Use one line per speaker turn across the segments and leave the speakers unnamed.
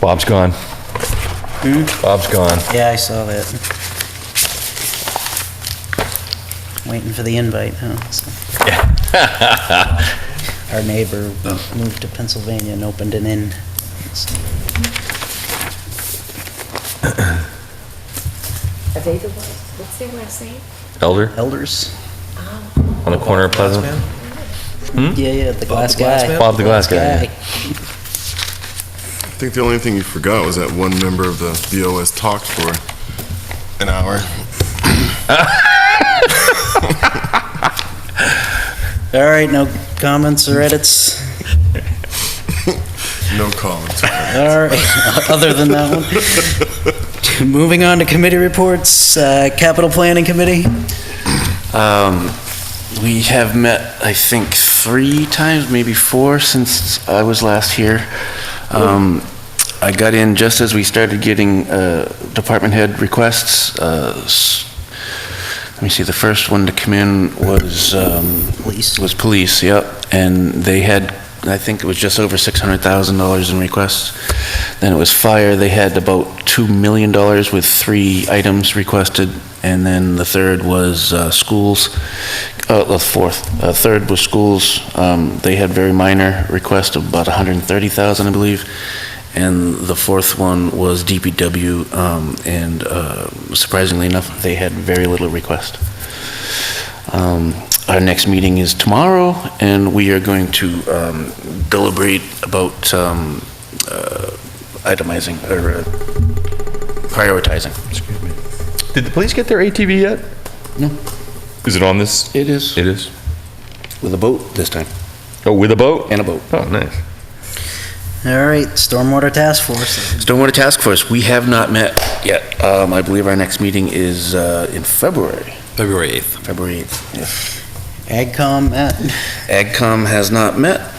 Bob's gone. Bob's gone.
Yeah, I saw that. Waiting for the invite, huh? so. Our neighbor
Oh.
moved to Pennsylvania and opened an inn. so.
Are they the ones, what's their last name?
Elder
Elders?
on the corner of Pleasant.
Yeah, yeah, the glass
glass
guy.
man?
Bob the Glass Guy.
I think the only thing you forgot was that one member of the BOS talked for an hour.
All right, no comments or edits?
No comments.
All right, other than that one. Moving on to committee reports, uh, Capital Planning Committee?
Um, we have met, I think, three times, maybe four, since I was last here. Um, I got in just as we started getting uh, department head requests. Uh, s- Let me see, the first one to come in was... um,
Police.
Was police, yep. And they had, I think it was just over $600,000 in requests. Then it was fire, they had about $2 million with three items requested. And then the third was uh, schools, uh, the fourth, uh, third was schools. Um, They had very minor requests of about 130,000, I believe. And the fourth one was DPW, um, and uh, surprisingly enough, they had very little request. Um, Our next meeting is tomorrow, and we are going to um, deliberate about um, uh, itemizing or uh, prioritizing.
Did the police get their ATV yet?
No.
Is it on this?
It is
It is.
with a boat this time,
Oh, with a boat?
and a boat.
Oh, nice.
All right, Stormwater Task Force.
Stormwater Task Force, we have not met yet. Um, I believe our next meeting is uh, in February,
February 8th.
February 8th. yes.
AgCom, Matt?
AgCom has not met.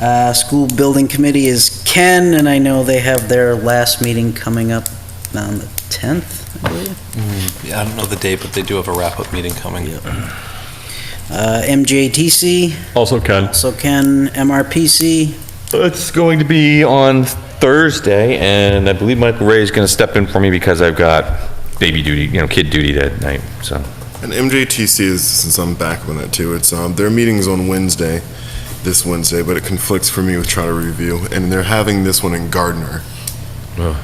Uh, School Building Committee is Ken, and I know they have their last meeting coming up on the 10th, I believe.
Mm. Yeah, I don't know the date, but they do have a wrap-up meeting coming.
Uh, MJTC,
Also, Ken.
so Ken, MRPC,
It's going to be on Thursday, and I believe Michael Ray is going to step in for me because I've got baby duty, you know, kid duty that night, so.
And MJTC is, since I'm back on that too, it's, um, their meeting's on Wednesday, this Wednesday, but it conflicts for me with trying to review. And they're having this one in Gardner,
Oh,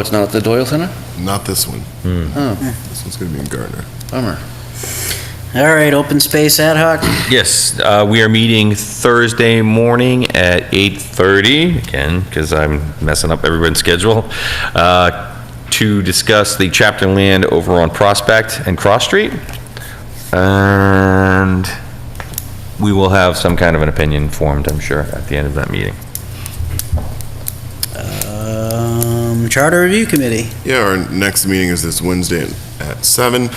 it's not at the Doyle Center?
not this one.
Oh,
This one's gonna be in Gardner.
bummer.
all right, Open Space Ad hoc,
Yes, uh, we are meeting Thursday morning at 8:30, again, because I'm messing up everyone's schedule, uh, to discuss the chapter land over on Prospect and Cross Street. And we will have some kind of an opinion formed, I'm sure, at the end of that meeting.
um, Charter Review Committee.
Yeah, our next meeting is this Wednesday at seven.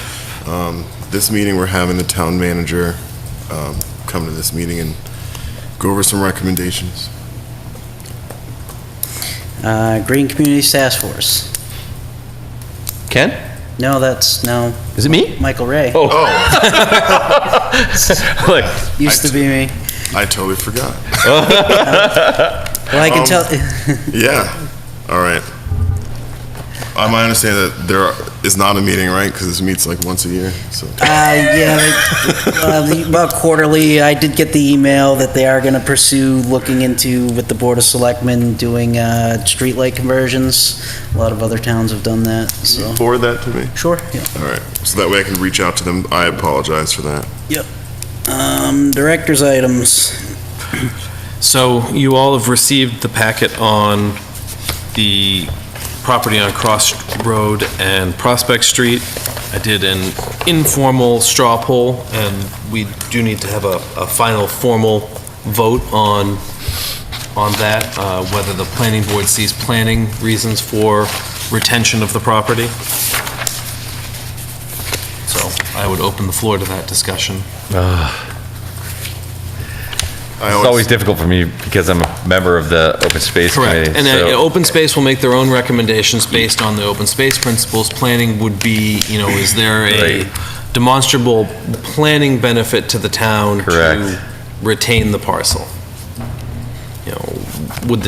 Um, This meeting, we're having the town manager um, come to this meeting and go over some recommendations.
Uh, Green Community Task Force.
Ken?
No, that's, no,
Is it me?
Michael Ray.
Oh.
Oh,
Look,
Used to be me.
I totally forgot.
Well, I can
Um,
tell,
Yeah, all right. I might understand that there is not a meeting, right? Because this meets like once a year, so.
Uh, yeah, they- uh, the- about quarterly, I did get the email that they are gonna pursue looking into with the Board of Selectmen doing, uh, streetlight conversions. A lot of other towns have done that, so.
Forward that to me.
Sure, yeah.
All right, so that way I can reach out to them. I apologize for that.
Um, director's items.
So you all have received the packet on the property on Cross Road and Prospect Street. I did an informal straw poll, and we do need to have a, a final formal vote on, on that, uh, whether the planning board sees planning reasons for retention of the property. So I would open the floor to that discussion.
I
it's always difficult for me because I'm a member of the Open Space Committee.
Correct, and
so-
uh, open space will make their own recommendations based on the open space principles. Planning would be, you know, is there a
Right.
demonstrable planning benefit to the town
Correct.
to retain the parcel? You know, would the